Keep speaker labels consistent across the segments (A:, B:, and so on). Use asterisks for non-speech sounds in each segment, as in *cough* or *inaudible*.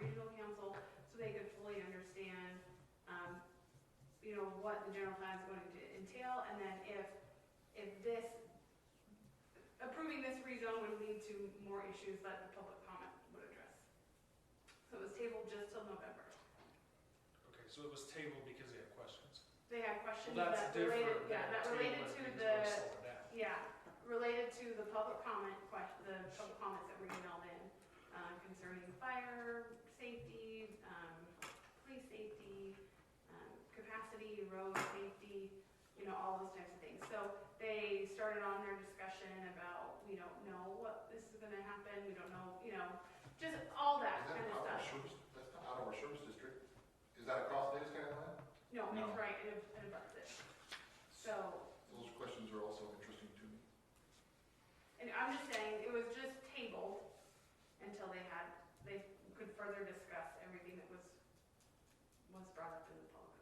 A: regional council so they could fully understand, um, you know, what the general plan is going to entail, and then if, if this, approving this rezone would lead to more issues that the public comment would address. So it was tabled just till November.
B: Okay, so it was tabled because they had questions.
A: They had questions
B: Well, that's
A: that related,
B: different
A: yeah,
B: than
A: that related to
B: tabling things
A: the,
B: by slowing down.
A: yeah, related to the public comment question, the public comments that were emailed in uh, concerning fire, safety, um, police safety, um, capacity, road safety, you know, all those types of things. So they started on their discussion about, we don't know what this is gonna happen, we don't know, you know, just all that
C: Is
A: kind
C: that
A: of
C: out of our
A: stuff.
C: service, that's not out of our service district? Is that across Davis County line?
A: No,
D: No.
A: it's right, it it abuts it. So,
C: Those questions are also interesting to me.
A: And I'm just saying, it was just tabled until they had, they could further discuss everything that was, was brought up in the public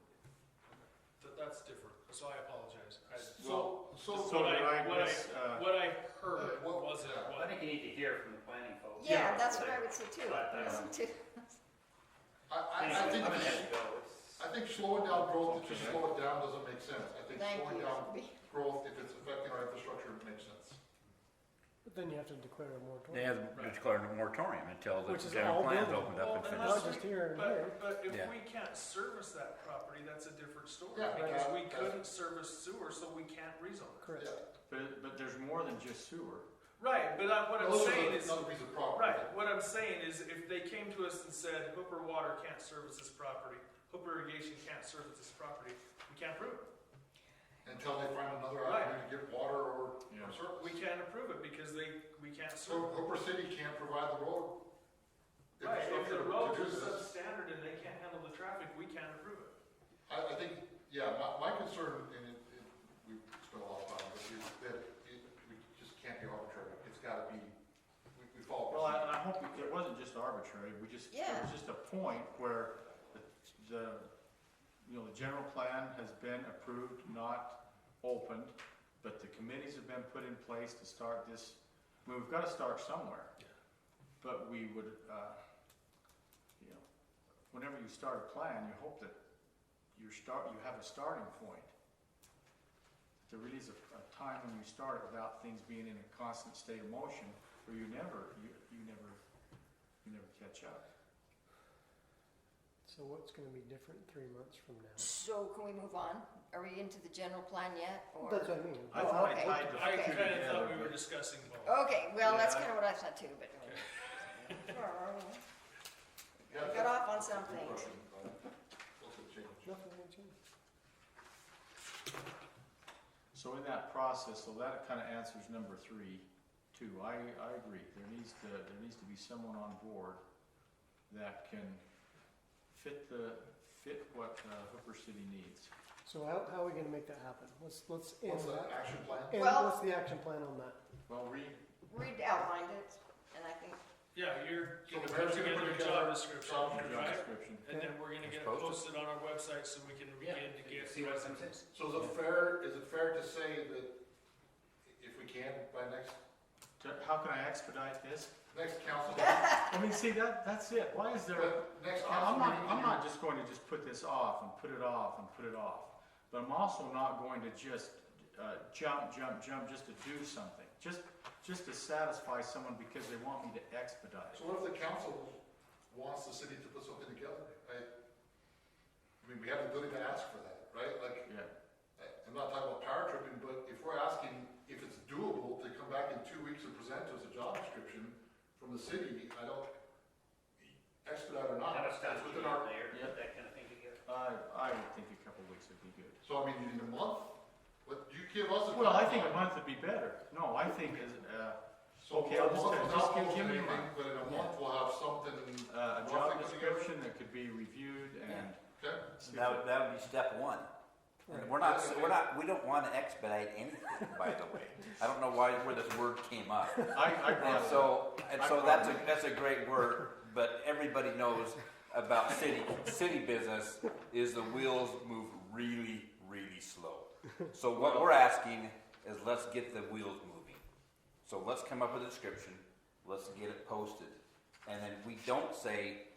A: comments.
B: Th- that's different, so I apologize. I-
C: So, so.
B: So what I, uh, what
D: miss,
B: I, what I heard
C: uh, what-
B: wasn't
C: uh,
D: I
B: what,
D: think you need to hear from the planning folks.
E: Yeah, that's what I would say too.
D: But, uh,
E: Listen to-
C: I, I, I think,
D: I'm gonna
C: this-
D: have to go. It's-
C: I think slowing down growth, to just slow it down doesn't make sense. I think
E: Thank
C: slowing
E: you.
C: down growth, if it's affecting our infrastructure, makes sense.
F: But then you have to declare a
G: They
F: moratorium.
G: have declared a moratorium until the
F: Which is
G: general
F: all
G: plan's
F: building.
G: opened up
B: Well,
G: and
B: then
G: finished.
F: Not just here and there.
B: but, but if
G: Yeah.
B: we can't service that property, that's a different story.
C: Yeah,
B: Because
C: right.
B: we couldn't service sewer, so we can't rezone it.
F: Correct.
C: Yeah.
D: But, but there's more than just sewer.
B: Right, but I- what I'm
C: Those are
B: saying
C: the-
B: is,
C: Another piece of property.
B: right, what I'm saying is if they came to us and said Hooper Water can't service this property, Hooper Irrigation can't service this property, we can't approve it.
C: Until they find another
B: Right.
C: avenue to get water or, or
B: We
C: service.
B: can't approve it because they, we can't
C: So
B: serve it.
C: Hooper City can't provide the road.
B: Right, if
C: infrastructure
B: the
C: to
B: roads
C: do
B: are
C: this.
B: substandard and they can't handle the traffic, we can't approve it.
C: I, I think, yeah, my, my concern, and it, it, we spent a lot of time, but is that it, we just can't be arbitrary. It's gotta be, we, we follow.
D: Well, I, I hope it- it wasn't just arbitrary, we just, there was just a point where the- the, you know, the general plan has been approved, not opened, but the committees have been put in place to start this, I mean, we've gotta start somewhere. But we would, uh, you know, whenever you start a plan, you hope that you start, you have a starting point. There really is a, a time when you start it without things being in a constant state of motion, where you never, you, you never, you never catch up.
F: So what's gonna be different three months from now?
E: So can we move on? Are we into the general plan yet? or-
F: That's what I mean.
D: I
E: Oh,
D: thought I
E: okay.
D: tied
B: I
D: the two
B: kind of
D: together,
B: thought we were
D: but
B: discussing both.
E: Okay, well, that's
D: Yeah.
E: kind of what I thought too, but.
D: *laughs*
C: Yeah,
E: Got off on
C: that's a good
E: something.
C: question, but What's the change?
F: Nothing will change.
D: so in that process, so that kind of answers number three, too. I, I agree, there needs to, there needs to be someone on board that can fit the, fit what uh, Hooper City needs.
F: So how, how are we gonna make that happen? Let's, let's end
C: What's the
F: that.
C: action plan?
F: And
E: Well-
F: what's the action plan on that?
D: Well, read,
E: Reed outlined it, and I think,
B: Yeah, you're
C: So
B: gonna
C: the
B: put
C: mayor's gonna
B: together a
C: put
B: job
C: together
B: description,
C: job
D: the job
B: right?
D: description.
B: And then we're gonna
G: It's
B: get it posted
G: posted.
B: on our website so we can begin to get.
D: See what's in
B: resumes.
D: it.
C: So is it fair, is it fair to say that if we can, by next,
D: To- How can I expedite this?
C: next council, meeting-
D: I mean, see, that, that's it, why is there?
C: but next council
D: I'm not,
C: meeting?
D: I'm
C: you-
D: not just going to just put this off and put it off and put it off. But I'm also not going to just uh, jump, jump, jump just to do something, just, just to satisfy someone because they want me to expedite
C: So
D: it.
C: what if the council wants the city to put something together? I, I mean, we have the ability to ask for that, right? Like,
D: Yeah,
C: I'm not talking about power tripping, but if we're asking if it's doable to come back in two weeks and present to us a job description from the city, I don't, expedite or not, it's within our,
D: Yep.
H: that kind of thing together.
D: I, I would think a couple weeks would be good.
C: so I mean, in a month? But you give us a.
D: Well, I think a
C: timeline.
D: month would be better. No, I think is, uh,
C: So
D: okay, I'll
C: a
D: just-
C: month
D: just
C: without
D: give-
C: posting
D: give me a
C: anything,
D: month.
C: But in a month, we'll have something
D: uh, a job
C: roughly put together.
D: description that could be reviewed and.
C: Okay,
G: So That, would- that would be step one. And
F: Right.
G: We're not, we're not, we don't want to expedite anything, by the way. I don't know why, where this word came up.
D: I, I brought
G: And
D: it up.
G: so, and so that's a, that's a great word, but everybody knows about city, city business is the wheels move really, really slow. So what we're asking is let's get the wheels moving. So let's come up with a description, let's get it posted. And then we don't say,